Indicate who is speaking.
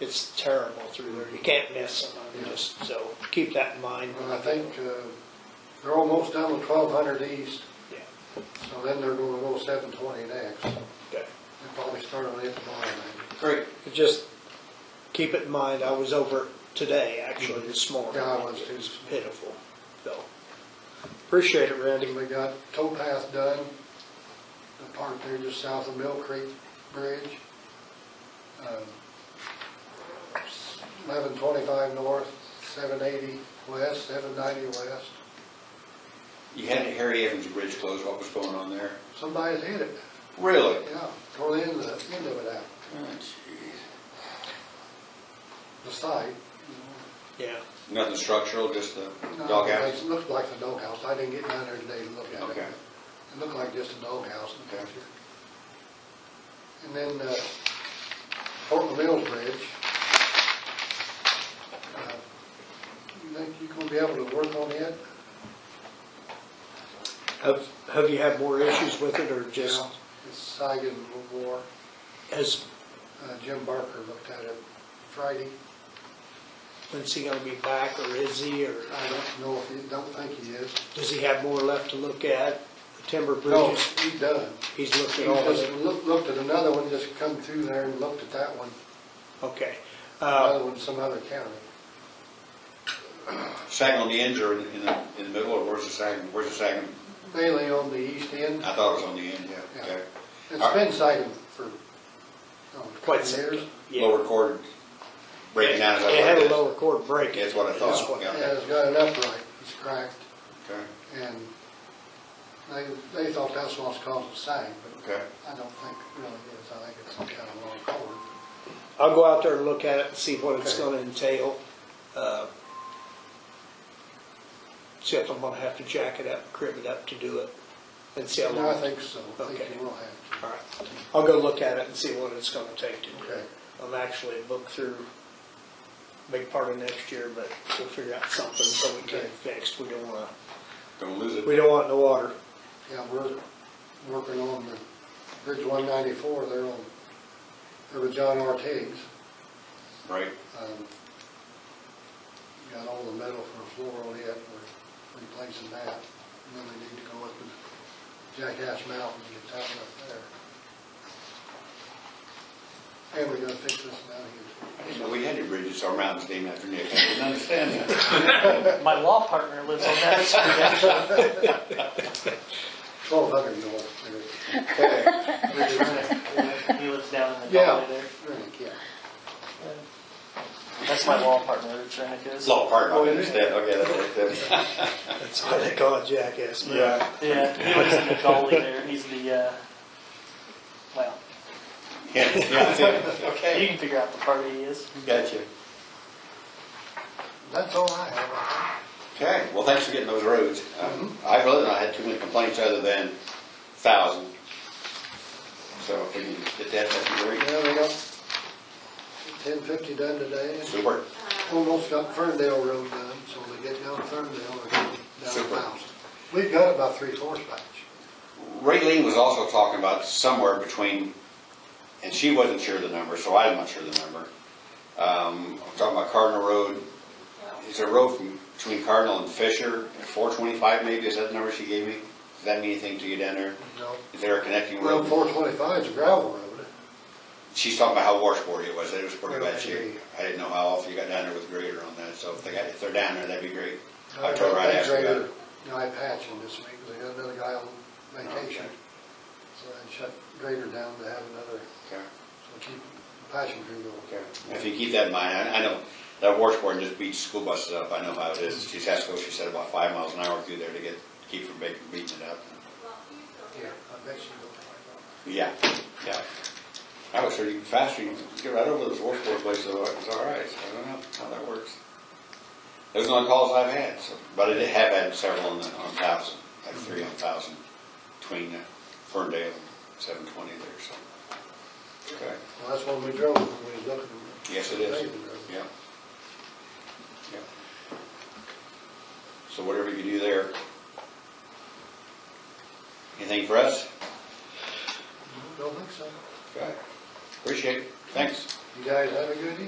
Speaker 1: It's terrible through there. You can't miss them. I mean, just, so keep that in mind.
Speaker 2: And I think uh, they're almost down to 1200 east,
Speaker 1: Yeah,
Speaker 2: so then they're going to go 720 next. They'll
Speaker 1: okay.
Speaker 2: probably start on it tomorrow night.
Speaker 1: Great. Just keep it in mind, I was over today, actually, this morning.
Speaker 2: Yeah, I was too.
Speaker 1: It's pitiful, so. Appreciate it, Randy.
Speaker 2: We got tow path done, the part there just south of Mill Creek Bridge. Um, 1125 Um, north, 780 west, 790 west.
Speaker 3: You had Harry Evans Bridge closed, what was going on there?
Speaker 2: Somebody's hit it,
Speaker 3: Really?
Speaker 2: yeah, tore the end of, the end of it out, the site.
Speaker 1: Yeah,
Speaker 3: Nothing structural, just the
Speaker 2: No,
Speaker 3: dog
Speaker 2: It
Speaker 3: house?
Speaker 2: looks like the doghouse. I didn't get down there today to look at it.
Speaker 3: Okay.
Speaker 2: It looked like just a doghouse in the
Speaker 3: Okay.
Speaker 2: picture. And then uh, Portland Mills Bridge. Uh, You think you're gonna be able to work on it?
Speaker 1: have, have you had more issues with it, or just,
Speaker 2: Yeah, It's Sagan War.
Speaker 1: has,
Speaker 2: Uh, Jim Barker looked at it Friday.
Speaker 1: when's he gonna be back, or is he, or
Speaker 2: I don't know if, he don't think he is.
Speaker 1: does he have more left to look at? The Timber
Speaker 2: No,
Speaker 1: bridges,
Speaker 2: he's done.
Speaker 1: he's looked
Speaker 2: He
Speaker 1: at all of
Speaker 2: just
Speaker 1: it.
Speaker 2: loo- looked at another one, just come through there and looked at that one.
Speaker 1: Okay. Uh,
Speaker 2: Another one, some other county.
Speaker 3: Sagan on the ends or in in the, in the middle, or where's the Sagan, where's the Sagan?
Speaker 2: mainly on the east end.
Speaker 3: I thought it was on the end, yeah,
Speaker 2: Yeah.
Speaker 3: okay.
Speaker 2: It's been sighted for, oh,
Speaker 1: Quite
Speaker 2: quite
Speaker 1: some
Speaker 2: years.
Speaker 1: yeah.
Speaker 3: Lower cord breaking down, is that what
Speaker 1: It had
Speaker 3: it
Speaker 1: a
Speaker 3: is?
Speaker 1: lower cord break.
Speaker 3: That's what I
Speaker 1: That's
Speaker 3: thought,
Speaker 1: what-
Speaker 3: yeah.
Speaker 2: Yeah, it's got an upright, it's cracked,
Speaker 3: Okay,
Speaker 2: and they, they thought that's what's caused the sag, but
Speaker 3: okay.
Speaker 2: I don't think it really is. I think it's some kind of long cord.
Speaker 1: I'll go out there and look at it and see what it's
Speaker 2: Okay.
Speaker 1: gonna entail. Uh, See if I'm gonna have to jack it up, crib it up to do it, and see how
Speaker 2: No, I
Speaker 1: long.
Speaker 2: think so. I think
Speaker 1: Okay.
Speaker 2: you will have
Speaker 1: All right, I'll go look at it and see what it's gonna take to do
Speaker 2: Okay.
Speaker 1: it. I'm actually booked through big part of next year, but we'll figure out something so we can get it fixed. We don't wanna,
Speaker 3: Don't lose it.
Speaker 1: we don't want it in the water.
Speaker 2: to. Yeah, we're working on the Bridge 194 there on, there with John Ortiz.
Speaker 3: Right,
Speaker 2: Um, Got all the metal for floral yet, we're replacing that. And then we need to go up to Jackass Mountain and get that up there. And we gotta fix this down here.
Speaker 3: I didn't know we had any bridges or mountains named after Nick, I didn't understand that.
Speaker 4: My law partner lives on that street, actually.
Speaker 2: Twelve hundred north there.
Speaker 4: He lives down in the
Speaker 2: Yeah,
Speaker 4: valley there.
Speaker 2: really, yeah.
Speaker 4: That's my law partner, Rich Renick is.
Speaker 3: It's all part,
Speaker 1: Oh,
Speaker 3: I understand, okay, that's, that's.
Speaker 1: That's why they call it jackass. man.
Speaker 4: Yeah, he lives in the gully there. He's the, uh, well,
Speaker 3: Yeah, yeah, that's it.
Speaker 4: you
Speaker 3: okay,
Speaker 4: can figure out the party he is.
Speaker 3: gotcha.
Speaker 2: That's all I have.
Speaker 3: Okay, well, thanks for getting those roads. Um,
Speaker 2: Mm-hmm.
Speaker 3: I really, I had too many complaints other than thousand. So if we can get that, that'd be great.
Speaker 2: Yeah, we got ten fifty done today.
Speaker 3: Super,
Speaker 2: Almost got Ferndale Road done, so when they get down Ferndale, they're down a
Speaker 3: Super.
Speaker 2: thousand. We've got about three fourths batch.
Speaker 3: Ray Lee was also talking about somewhere between, and she wasn't sure of the number, so I'm not sure of the number. Um, I'm talking about Cardinal Road, is there a road from, between Cardinal and Fisher, four twenty-five maybe, is that the number she gave me? Does that mean anything to you down there?
Speaker 2: No.
Speaker 3: Is there a connecting
Speaker 2: Well,
Speaker 3: road?
Speaker 2: four twenty-five is a gravel road.
Speaker 3: She's talking about how washboard it was, that it was pretty bad
Speaker 2: Right.
Speaker 3: shape. I didn't know how often you got down there with grader on that, so if they got, if they're down there, that'd be great.
Speaker 2: Uh,
Speaker 3: I told her I'd ask her about it.
Speaker 2: Guy patching this week, because they got another guy on vacation. So I shut grader down to have another,
Speaker 3: Okay.
Speaker 2: so keep patching crew going.
Speaker 3: If you keep that in mind, I, I know that washboard just beats school buses up, I know how it is. She's has to go, she said about five miles an hour through there to get, keep from beating, beating it up.
Speaker 2: Yeah, I bet you
Speaker 3: Yeah, yeah. I was sure you could faster, you could get right over those washboard places, so it's all right, so I don't know how that works. Those are the calls I've had, so, but I did have had several on the, on thousand, like three on thousand, between Ferndale and seven twenty there, so. Okay.
Speaker 2: will. Well, that's when we drove, when we was looking. at
Speaker 3: Yes, it is.
Speaker 2: paving road.
Speaker 3: Yeah. Yeah. So whatever you do there. Anything for us?
Speaker 2: Don't think so.
Speaker 3: Okay. Appreciate it. Thanks.
Speaker 2: You guys have a good evening.